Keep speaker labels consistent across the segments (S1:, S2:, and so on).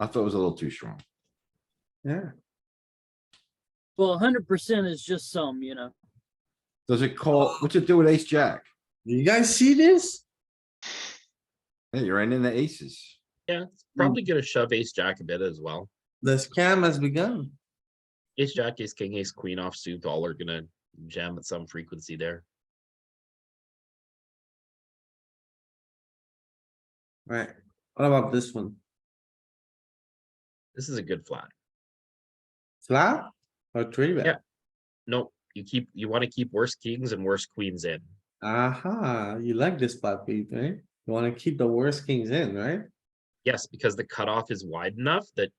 S1: I thought it was a little too strong.
S2: Yeah,
S3: Well, hundred percent is just some, you know.
S1: Does it
S4: Oh.
S1: call, what's it do with ace jack?
S2: you guys see this?
S1: Hey, you're right in the aces.
S5: Yeah, it's probably gonna shove ace jack a bit as well.
S2: The scam has begun.
S5: Ace jack, ace king, ace queen offsuit, all are gonna jam at some frequency there.
S2: Right, what about this one?
S5: This is a good flat.
S2: Flat or three
S5: Yeah.
S2: bet?
S5: No, you keep, you wanna keep worse kings and worse queens in.
S2: Aha, you like this spot, Pete, right? You wanna keep the worst kings in, right?
S5: Yes, because the cutoff is wide enough that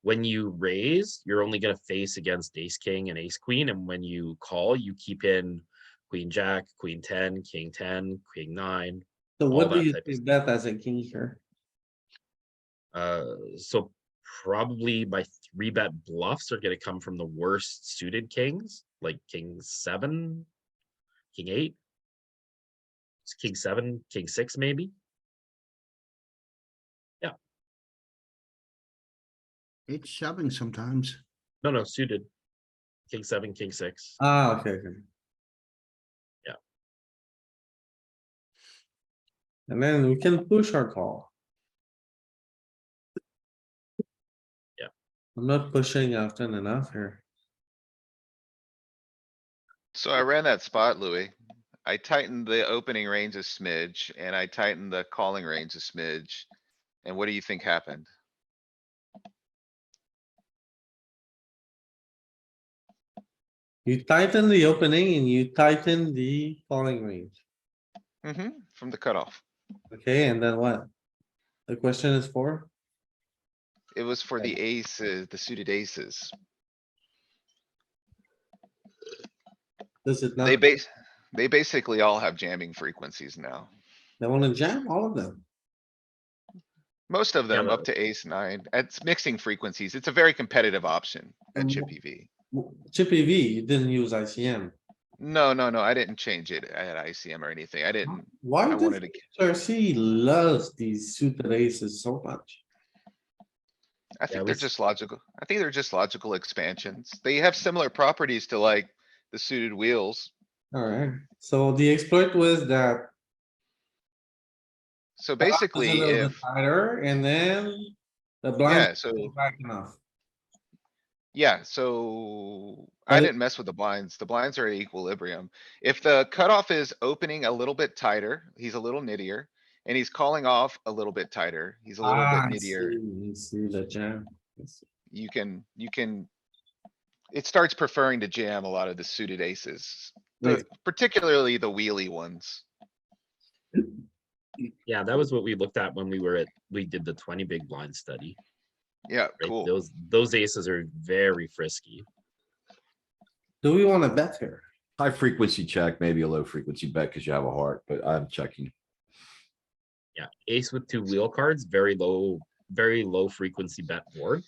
S5: when you raise, you're only gonna face against ace, king and ace queen, and when you call, you keep in queen jack, queen ten, king ten, queen nine.
S2: So
S5: All
S2: what do
S5: that
S2: you
S5: type of
S2: think bet as a king here?
S5: Uh, so probably my three bet bluffs are gonna come from the worst suited kings, like king seven, king eight. s- King seven, king six, maybe.
S6: It's shoving sometimes.
S5: No, no, suited. King seven, king six.
S4: Uh.
S2: Ah, okay, okay.
S5: Yeah.
S2: And then we can push our call.
S5: Yeah.
S2: I'm not pushing often enough here.
S4: So I ran that spot, Louis. I tightened the opening range a smidge and I tightened the calling range a smidge. And what do you think happened?
S2: You tighten the opening and you tighten the falling range,
S4: hmm from the cutoff.
S2: okay, and then what? The question is for,
S4: It was for the aces, the suited aces.
S2: does it not,
S4: They
S2: they
S4: base, they basically all have jamming frequencies now.
S2: wanna jam all of them?
S4: Most of
S5: Yeah,
S4: them up
S5: but-
S4: to ace nine. It's mixing frequencies. It's a very competitive option at chip EV.
S2: Chippy V, you didn't use ICM,
S4: No, no, no, I didn't change it at ICM or anything. I didn't.
S2: why
S4: I wanted
S2: does
S4: to,
S2: HRC loves these suited aces so much?
S4: I
S5: Yeah,
S4: think they're
S5: we-
S4: just logical. I think they're just logical expansions. They have similar properties to like the suited wheels.
S2: Alright, so the exploit was that. the odds was
S4: So
S2: a
S4: basically,
S2: little bit
S4: if,
S2: Tighter and then the
S4: yeah,
S2: blind was
S4: so,
S2: back enough.
S4: yeah, so
S2: But
S4: I
S2: it-
S4: didn't mess with the blinds. The blinds are at equilibrium. If the cutoff is opening a little bit tighter, he's a little nittier. And he's calling off a little bit tighter. He's a little
S2: Ah, I
S4: bit nittier.
S2: see, I See the jam. I see.
S4: You can, you can. It starts preferring to jam a lot of the suited aces, the-
S2: Like,
S4: particularly the wheelie ones.
S5: Yeah, that was what we looked at when we were at, we did the twenty big blind study.
S4: Yeah,
S5: right?
S4: cool.
S5: Those, those aces are very frisky.
S2: Do we wanna bet here?
S1: High frequency check, maybe a low frequency bet because you have a heart, but I'm checking.
S5: Yeah, ace with two wheel cards, very low, very low frequency bet board.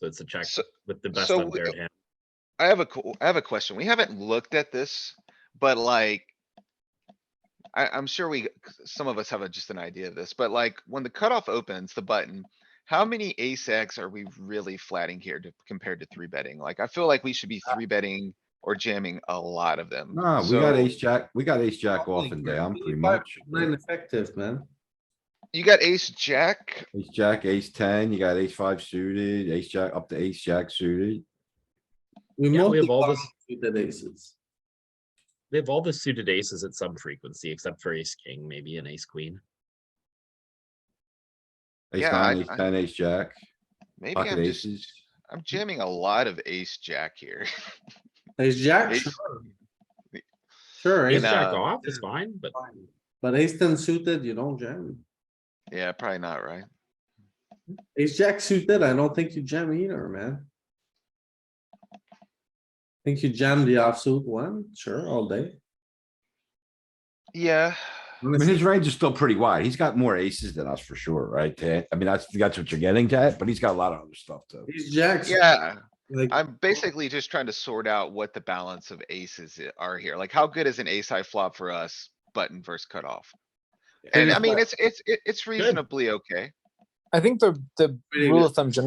S5: So it's a check
S4: So-
S5: with the best
S4: so
S5: unpaired
S4: w-
S5: hand.
S4: I have a, co- I have a question. We haven't looked at this, but like. I, I'm sure we, some of us have a- just an idea of this, but like when the cutoff opens the button, how many ace X are we really flatting here to, compared to three betting? Like, I feel like we should be three betting or jamming a lot of them.
S1: Uh Nah, we got
S4: So,
S1: ace jack, we got ace jack off
S2: Something
S1: and
S2: here.
S1: down pretty
S2: 25,
S1: much.
S2: Nine effective, man.
S4: You got ace jack.
S1: Ace jack, ace ten, you got ace five suited, ace jack up to ace jack suited.
S2: We
S5: Yeah,
S2: mostly
S5: we have all
S2: call
S5: this-
S2: suited aces.
S5: They have all the suited aces at some frequency, except for ace king, maybe an ace queen.
S1: Ace
S4: Yeah,
S1: nine,
S4: I-
S1: ace
S4: I-
S1: ten, ace jack,
S4: Maybe
S1: pocket
S4: I'm just,
S1: aces.
S4: I'm jamming a lot of ace jack here.
S2: Ace jack,
S4: Ace-
S2: sure. Sure,
S5: Ace
S2: ace
S4: know-
S5: jack
S4: uh,
S5: off is fine, but
S2: fine. But ace ten suited, you don't jam.
S4: Yeah, probably not, right?
S2: Ace jack suited, I don't think you jam either, man. Think you jam the offsuit one? Sure, all day.
S4: Yeah.
S1: I mean, his range is still pretty wide. He's got more aces than us for sure, right? Ted? I mean, that's, that's what you're getting at, but he's got a lot of other stuff too.
S2: Ace jacks.
S4: Yeah.
S2: Like,
S4: I'm basically just trying to sort out what the balance of aces i- are here. Like, how good is an ace high flop for us button versus cutoff? And I mean, it's, it's, it- it's reasonably okay.
S7: I think the, the
S2: Pretty
S7: rule
S2: good.
S7: of thumb generally